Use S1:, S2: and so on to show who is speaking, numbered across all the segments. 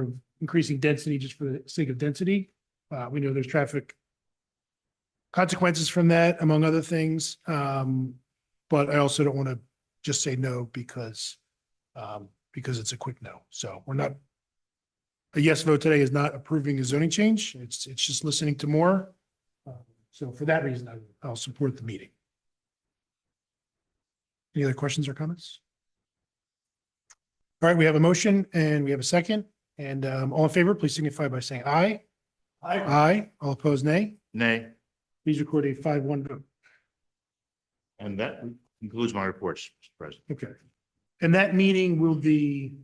S1: of increasing density just for the sake of density. Uh, we know there's traffic consequences from that, among other things. Um, but I also don't want to just say no because, um, because it's a quick no. So we're not, a yes vote today is not approving a zoning change. It's, it's just listening to more. Uh, So for that reason, I- I'll support the meeting. Any other questions or comments? All right, we have a motion and we have a second. And um, all in favor, please signify by saying aye. Aye. Aye. All opposed, nay.
S2: Nay,
S1: Please record a five one vote.
S2: and that concludes my reports, Mr. President.
S1: Okay. And that meeting will be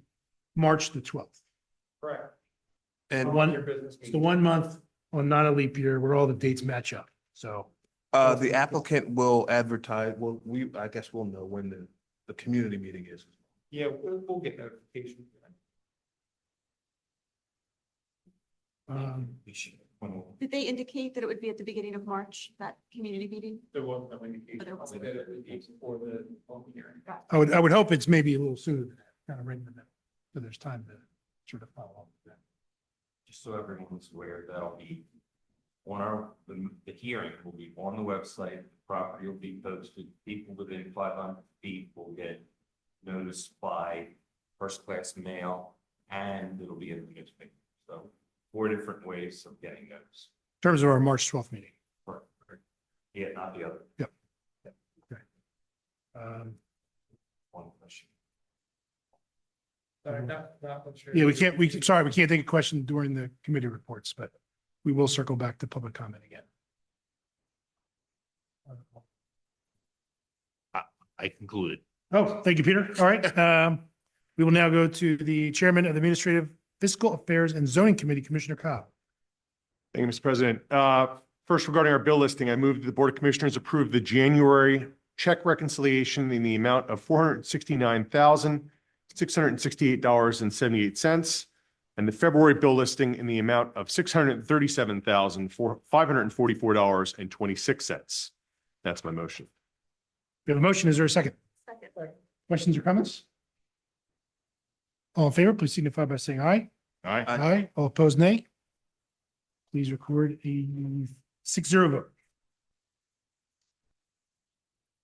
S1: March the twelfth.
S3: Correct.
S4: And
S1: One, it's the one month on not a leap year where all the dates match up. So
S4: uh, the applicant will advertise, well, we, I guess we'll know when the, the community meeting is.
S3: Yeah, we'll, we'll get notification.
S1: um,
S5: Did they indicate that it would be at the beginning of March, that community meeting?
S3: There was no indication.
S5: There wasn't.
S3: We did it the day Before the public hearing.
S1: I would, I would hope it's maybe a little sooner than that, kind of right in the middle. So there's time to sort of follow up. with that.
S6: just so everyone's aware, that'll be on our, the, the hearing will be on the website, The property will be posted, people within five hundred feet will get notice by first-class mail, and it'll be in the newspaper. So four different ways of getting notice.
S1: In terms of our March twelfth meeting.
S6: Yeah, not the other
S1: Um,
S6: one question.
S3: Sorry, not- not what you're-
S1: Yeah, we can't, we, sorry, we can't take a question during the committee reports, but we will circle back to public comment again.
S2: I concluded.
S1: Oh, thank you, Peter. All right. Um, we will now go to the chairman of the Administrative Fiscal Affairs and Zoning Committee, Commissioner Cobb.
S7: Thank you, Mr. President. Uh, First, regarding our bill listing, I move that the Board of Commissioners approve the January check reconciliation in the amount of four hundred sixty-nine thousand, six hundred sixty-eight dollars and seventy-eight cents, and the February bill listing in the amount of six hundred thirty-seven thousand, five hundred forty-four dollars and twenty-six cents. That's my motion.
S1: We have a motion. Is there a second?
S5: Second.
S1: Questions or comments? All in favor, please signify by saying aye.
S2: All right,
S4: Aye.
S1: Aye. All opposed, nay. Please record a six zero vote.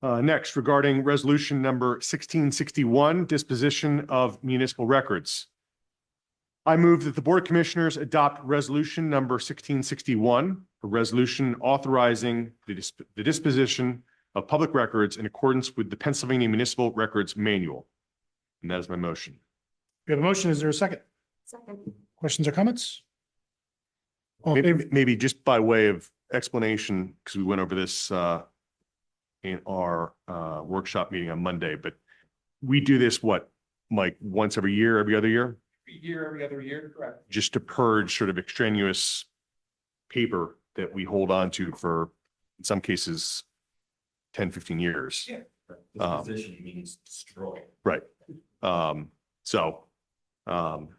S7: Uh, Next, regarding resolution number 1661, disposition of municipal records. I move that the Board of Commissioners adopt resolution number 1661, a resolution authorizing the dis- the disposition of public records in accordance with the Pennsylvania Municipal Records Manual. And that is my motion.
S1: We have a motion. Is there a second?
S5: Second.
S1: Questions or comments? All in favor,
S7: Maybe maybe just by way of explanation, because we went over this uh, in our uh, workshop meeting on Monday, but we do this, what, Mike, once every year, every other year,
S3: Every year, every other year, correct.
S7: just to purge sort of extraneous paper that we hold on to for, in some cases, 10, 15 years.
S3: Yeah.
S7: Um,
S6: Disposition means destroy.
S7: Um, so, um,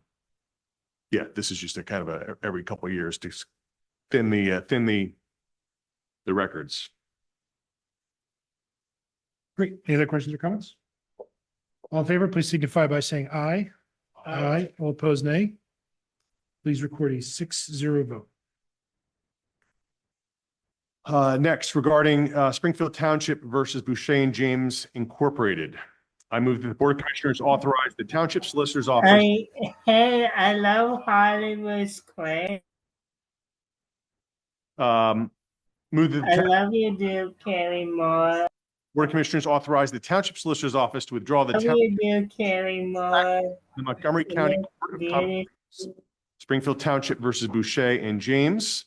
S7: yeah, this is just a kind of a, every couple of years to s- thin the, uh, thin the, the records.
S1: great. Any other questions or comments? All in favor, please signify by saying aye. Aye. All opposed, nay. Please record a six zero vote.
S7: Uh, next, regarding, uh, Springfield Township versus Boucher and James Incorporated. I move that the Board of Commissioners authorize the Township Solicitor's Office.
S8: I hey, I love Hollywood Square.
S7: Um, move that the
S8: I
S7: Town-
S8: love you, do Carrie Moore.
S7: Board of Commissioners authorize the Township Solicitor's Office to withdraw the
S8: Love
S7: town,
S8: you, do Carrie Moore.
S7: the Montgomery County Court of Com-
S8: Beauty-
S7: Springfield Township versus Boucher and James,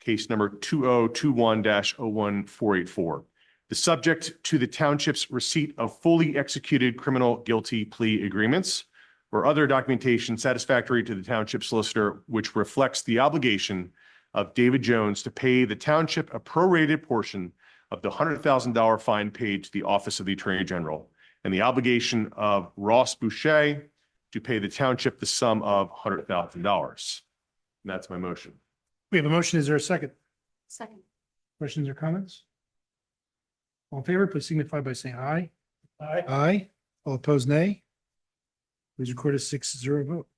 S7: case number two oh two one 1484 The subject to the township's receipt of fully executed criminal guilty plea agreements or other documentation satisfactory to the township solicitor, which reflects the obligation of David Jones to pay the township a prorated portion of the hundred thousand dollar fine paid to the Office of the Attorney General and the obligation of Ross Boucher to pay the township the sum of hundred thousand dollars. And that's my motion.
S1: We have a motion. Is there a second?
S5: Second.
S1: Questions or comments? All in favor, please signify by saying aye. Aye. Aye. All opposed, nay. Please record a six zero vote.